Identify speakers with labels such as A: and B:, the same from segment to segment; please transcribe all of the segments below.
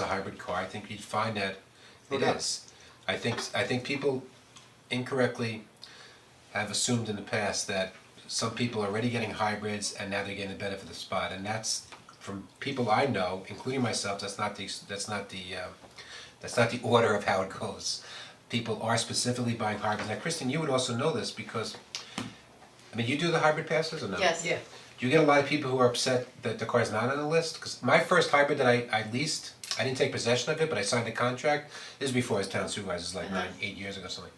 A: a hybrid car, I think you'd find that it
B: Okay.
A: is. I think, I think people incorrectly have assumed in the past that some people are already getting hybrids and now they're getting the benefit of the spot, and that's from people I know, including myself, that's not the, that's not the, uh, that's not the order of how it goes. People are specifically buying hybrids, now Kristen, you would also know this because, I mean, you do the hybrid passes or no?
C: Yes.
B: Yeah,
A: Do you get a lot of people who are upset that the car's not on the list? Because my first hybrid that I, I leased, I didn't take possession of it, but I signed a contract. This is before I was town supervisor, this is
C: Uh-huh.
A: like nine, eight years ago, something.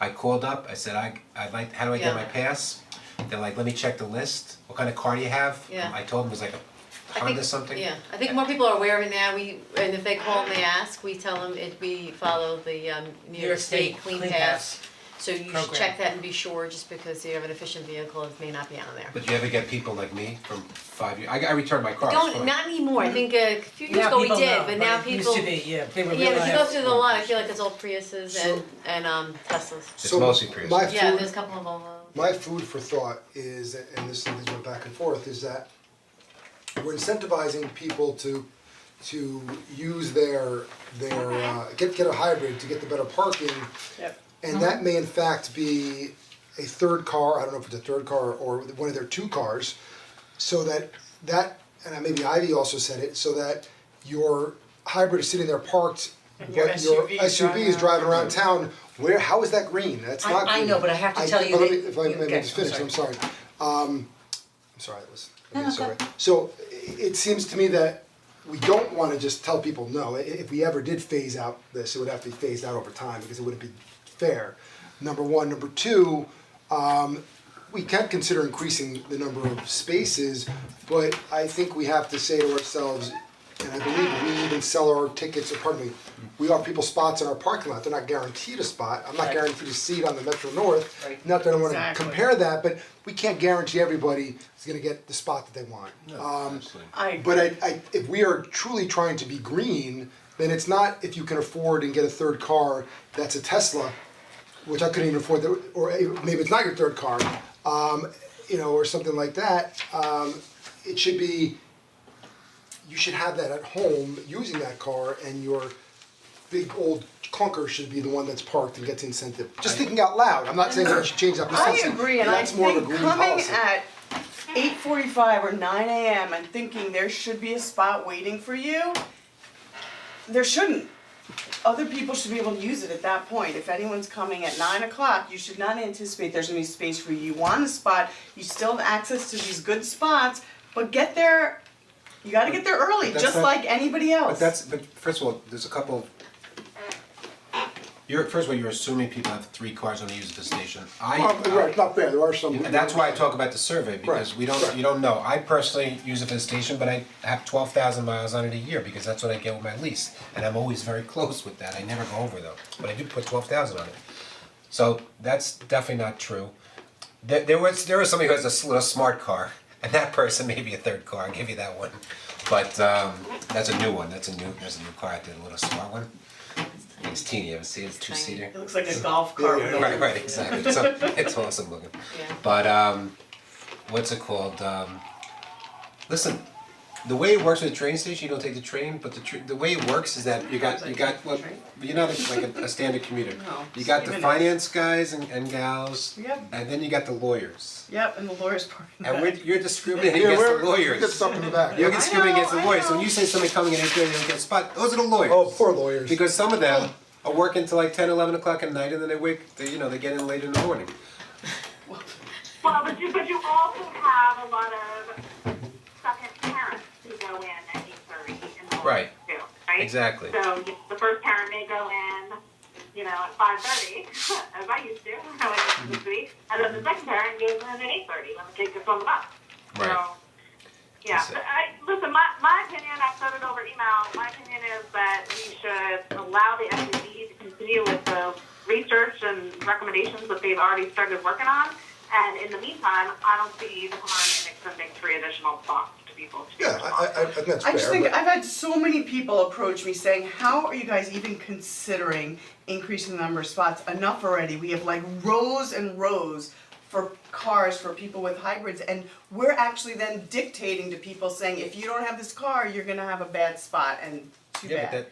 A: I called up, I said, I, I'd like, how do I get my
C: Yeah.
A: pass? They're like, let me check the list, what kind of car do you have?
C: Yeah.
A: I told them it was like a
C: I think-
A: Honda something.
C: Yeah, I think more people are aware of it now, we, and if they call and they ask, we tell them it, we follow the um New York State Clean Pass. So you should
B: program.
C: check that and be sure, just because you have an efficient vehicle, it may not be on there.
A: But do you ever get people like me from five years, I, I returned my car, it's
C: Don't,
A: fine.
C: not anymore, I think a few years
B: now
C: ago we
B: people
C: did,
B: know,
C: but now
B: it
C: people.
B: used to be, yeah, they were
C: Yeah, but if you go
B: realized.
C: through the lot, I feel like it's all Priuses and
D: So-
C: and um Teslas.
A: It's
D: So,
A: mostly Prius.
D: my
C: Yeah,
D: food-
C: there's a couple of Volvo.
D: my food for thought is, and this thing went back and forth, is that we're incentivizing people to to use their their uh, get get a hybrid to get the better parking.
B: Yep.
D: And that may in fact be a third car, I don't know if it's a third car or one of their two cars, so that that and I- maybe Ivy also said it, so that your hybrid is sitting there parked
B: And your
D: but your
B: SUV is
D: SUV is
B: driving around.
D: driving around town, where, how is that green? That's
B: I-
D: not
B: I
D: green.
B: know, but I have to tell you
D: but let
B: that-
D: me- If I
B: you-
D: may
B: okay,
D: just
B: I'm
D: finish,
B: sorry.
D: I'm sorry. Um, I'm sorry, that was, I mean, sorry. So i- it seems to me that we don't wanna just tell people no, I- if we ever did phase out this, it would have to be phased out over time because it wouldn't be fair. Number one, number two, we can consider increasing the number of spaces, but I think we have to say to ourselves, and I believe we even sell our tickets, or pardon me, we offer people spots in our parking lot, they're not guaranteed a spot, I'm not
B: Right.
D: guaranteed a seat on the Metro North.
B: Right.
D: Not that I wanna
B: Exactly.
D: compare that, but we can't guarantee everybody is gonna get the spot that they want. Um,
A: Absolutely.
B: I agree.
D: but I, I, if we are truly trying to be green, then it's not if you can afford and get a third car that's a Tesla, which I couldn't even afford, that, or maybe it's not your third car, um, you know, or something like that. Um, it should be, you should have that at home using that car, and your big old clunker should be the one that's parked and gets incentive. Just thinking out loud. I'm not saying that we should change that
E: I
D: percentage.
E: agree, and I
D: That's more of a
E: think
D: green
E: coming
D: policy.
E: at eight forty-five or nine AM and thinking there should be a spot waiting for you, there shouldn't. Other people should be able to use it at that point. If anyone's coming at nine o'clock, you should not anticipate there's gonna be space for you. You want a spot, you still have access to these good spots, but get there, you gotta get there early,
A: But that's
E: just
A: not-
E: like anybody else.
A: But that's, but first of all, there's a couple. You're, first of all, you're assuming people have three cars when they use the station. I.
D: Um, right, not fair. There are some.
A: And that's why I talk about the survey, because we
D: Right,
A: don't,
D: right.
A: you don't know, I personally use it for the station, but I have twelve thousand miles on it a year, because that's what I get with my lease. And I'm always very close with that, I never go over though, but I do put twelve thousand on it. So that's definitely not true. There, there was, there was somebody who has a s- little smart car, and that person may be a third car, I'll give you that one. But, um, that's a new one, that's a new, there's a new car out there, a little smart one. It's teeny, you ever see it, it's two seater.
E: It looks like a golf cart.
A: Right, right, exactly, so it's awesome looking.
C: Yeah.
A: But um, what's it called, um, listen, the way it works with the train station, you don't take the train, but the tr- the way it works is that you got, you got, well, you're not a- like a a standard commuter.
E: No,
A: You got the
E: even if-
A: finance guys and and gals,
E: Yep.
A: and then you got the lawyers.
E: Yep, and the lawyer's parking.
A: And we're, you're discriminating
D: Yeah,
A: against
D: we're,
A: the
D: we get
A: lawyers.
D: something in the back.
A: You're discriminating against the
E: I know, I
A: lawyers, so when
E: know.
A: you say somebody coming in and they don't get a spot, those are the lawyers.
D: Oh, poor lawyers.
A: Because some of them are working till like 10, 11 o'clock at night, and then they wake, they, you know, they get in late in the morning.
F: Well, but you, but you also have a lot of second parents who go in at eight thirty in the morning
A: Right.
F: too, right?
A: Exactly.
F: So you- the first parent may go in, you know, at five thirty, as I used to, when I was week, and then the second parent goes in at eight thirty when the kid gets on the bus.
A: Right.
F: So, yeah,
A: That's it.
F: but I, listen, my, my opinion, I've said it over email, my opinion is that we should allow the SEC to continue with the research and recommendations that they've already started working on. And in the meantime, I don't see the harm in extending three additional spots to people. to
D: Yeah, I, I, I think that's fair.
E: I just think
D: but-
E: I've had so many people approach me saying, "How are you guys even considering increasing the number of spots? Enough already. We have like rows and rows for cars for people with hybrids, and we're actually then dictating to people saying, if you don't have this car, you're gonna have a bad spot, and
G: too bad.
E: Yeah, but that,